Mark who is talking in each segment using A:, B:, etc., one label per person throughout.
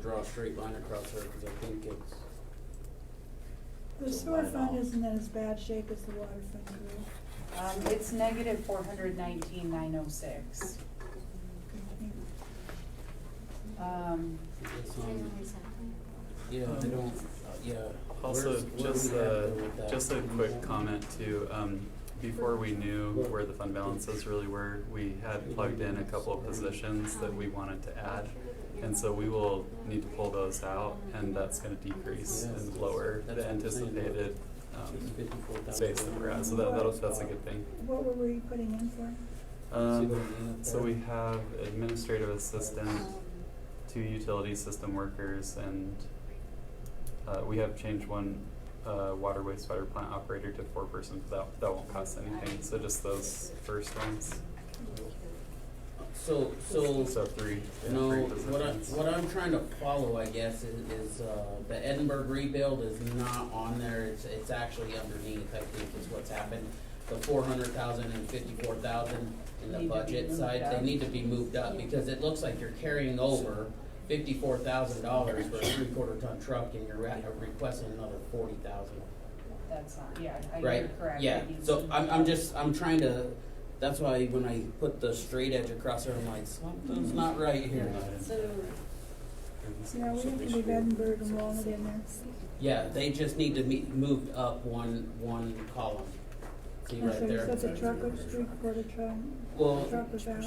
A: draw a straight line across there, cause I think it's,
B: The sewer fund isn't in as bad shape as the water fund, really.
C: Um, it's negative four hundred nineteen nine oh six. Um,
A: it's on, yeah, I don't, uh, yeah.
D: Also,
A: Where's- where
D: just
A: we at
D: a,
A: with that?
D: just a quick comment too, um, before we knew where the fund balances really were, we had plugged in a couple of positions that we wanted to add. And so we will need to pull those out and that's gonna decrease and lower the anticipated, um, space that we're at, so that, that'll, that's a good thing.
B: What were we putting in for?
D: Um, so we have administrative assistant, two utility system workers, and uh, we have changed one uh, water wastewater plant operator to four person, but that, that won't cost anything, so just those first ones.
A: So, so,
D: So three, yeah,
A: no,
D: three
A: what I,
D: positions.
A: what I'm trying to follow, I guess, is, is, uh, the Edinburgh rebuild is not on there, it's, it's actually underneath, I think is what's happened. The four hundred thousand and fifty-four thousand in the
C: Need to be
A: budget
C: moved
A: side,
C: up.
A: they need to be moved up, because it looks like you're carrying over fifty-four thousand dollars for a three-quarter ton truck, and you're at- requesting another forty thousand.
C: that's not, yeah, I, you're
A: Right,
C: correct.
A: yeah,
C: It needs
A: so
C: to be-
A: I'm, I'm just, I'm trying to, that's why when I put the straight edge across there, I'm like, something's not right here.
E: So,
B: Yeah, we have to leave Edinburgh and Walnut in there.
A: Yeah, they just need to be moved up one, one column. See
B: And
A: right
B: so you
A: there?
B: said the truck was three quarter ton,
A: Well,
B: truck was out.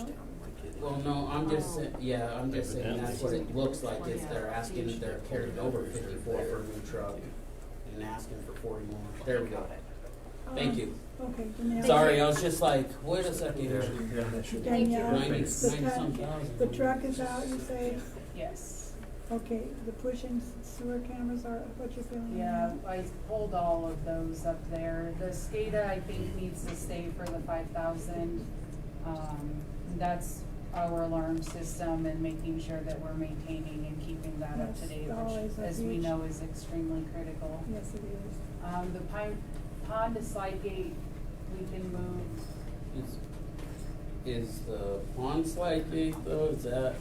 A: well, no, I'm just saying, yeah, I'm just saying that's what it looks like, is they're asking, if they're carrying over fifty-four for a new truck and asking for forty more. There we go. Thank you.
B: Um, Okay, give me. a-
A: Sorry, I was just like, wait a second here.
B: Danielle,
A: Ninety, ninety
B: the
A: some
B: ton,
A: thousand.
B: the truck is out, you say?
C: Yes,
B: Okay, the pushing sewer cameras are, what you're feeling?
C: yeah, I pulled all of those up there. The SCADA, I think, needs to stay for the five thousand. Um, that's our alarm system and making sure that we're maintaining and keeping that up to
B: That's
C: date,
B: always
C: which,
B: a
C: as we
B: huge-
C: know, is extremely critical.
B: Yes, it is.
C: Um, the pine, pond to slide gate, we can move,
A: Is- Is the pond slide gate though, is that?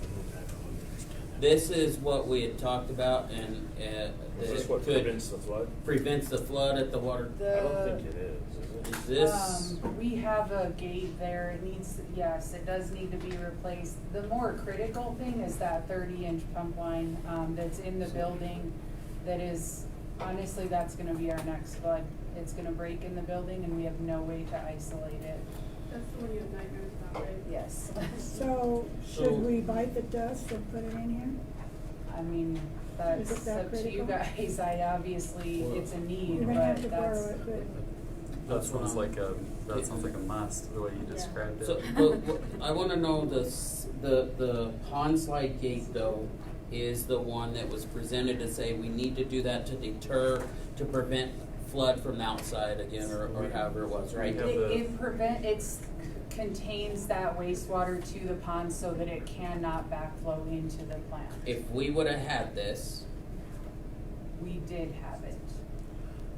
A: This is what we had talked about and, uh,
F: Is this
A: that
F: what
A: could-
F: prevents the flood?
C: Uh,
A: prevents the flood at the water.
F: I don't think
C: the,
F: it is, is it?
A: Is this,
C: um, we have a gate there, it needs, yes, it does need to be replaced. The more critical thing is that thirty inch pump line, um, that's in the building, that is, honestly, that's gonna be our next flood. It's gonna break in the building and we have no way to isolate it.
E: that's the one you have nightmares about, right?
C: Yes.
B: So
A: So-
B: should we bite the dust and put it in here?
C: I mean,
B: Is it
C: that's
B: that
C: up to you
B: critical?
C: guys, I obviously, it's a need,
B: You're
C: but
B: gonna have
C: that's.
B: to borrow it, but.
D: That sounds like a, that sounds like a must, the way you described it.
A: so, but, but I wanna know the, s- the, the pond slide gate though, is the one that was presented to say we need to do that to deter, to prevent flood from the outside again, or, or however it was, right?
D: We have
C: It,
D: the-
C: it prevent, it's, contains that wastewater to the pond so that it cannot backflow into the plant.
A: If we would've had this,
C: We did have it.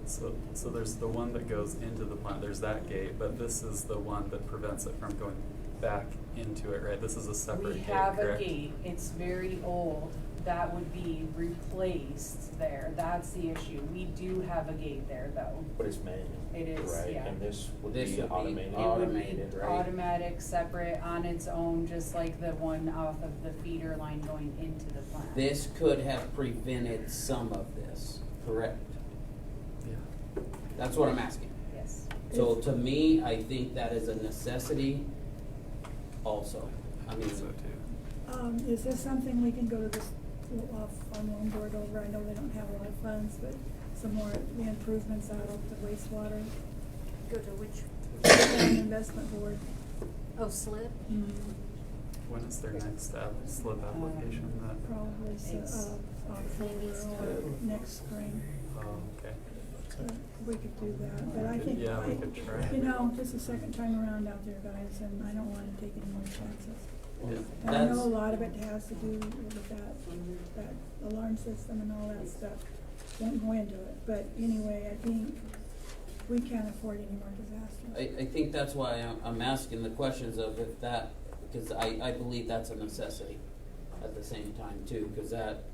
D: So, so there's the one that goes into the plant, there's that gate, but this is the one that prevents it from going back into it, right? This is a separate
C: We
D: gate,
C: have a
D: correct?
C: gate, it's very old, that would be replaced there, that's the issue. We do have a gate there though.
F: But it's manual.
C: It is,
F: Right,
C: yeah.
F: and this would
A: This
F: be
A: would be
F: automated.
C: It would be
A: Automated, right?
C: automatic, separate, on its own, just like the one off of the feeder line going into the plant.
A: this could have prevented some of this, correct?
D: Yeah.
A: That's what I'm asking.
C: Yes.
A: So to me, I think that is a necessity also. I mean,
D: So too.
B: Um, is this something we can go to this, off on loan board over, I know they don't have a lot of funds, but some more improvements out of the wastewater,
G: Go to which,
B: and investment board.
G: oh, slip?
B: Mm,
D: When is their next step, slip application that,
B: Probably, so,
C: It's-
B: uh, October or next spring,
D: oh, okay.
B: but we could do that, but I think,
D: Yeah, we could try.
B: I, you know, this is the second time around out there, guys, and I don't wanna take any more chances.
D: Yeah.
B: And I
A: that's,
B: know a lot of it has to do with that, that alarm system and all that stuff, won't go into it, but anyway, I think we can't afford any more disasters.
A: I, I think that's why I'm, I'm asking the questions of if that, because I, I believe that's a necessity at the same time too, because that,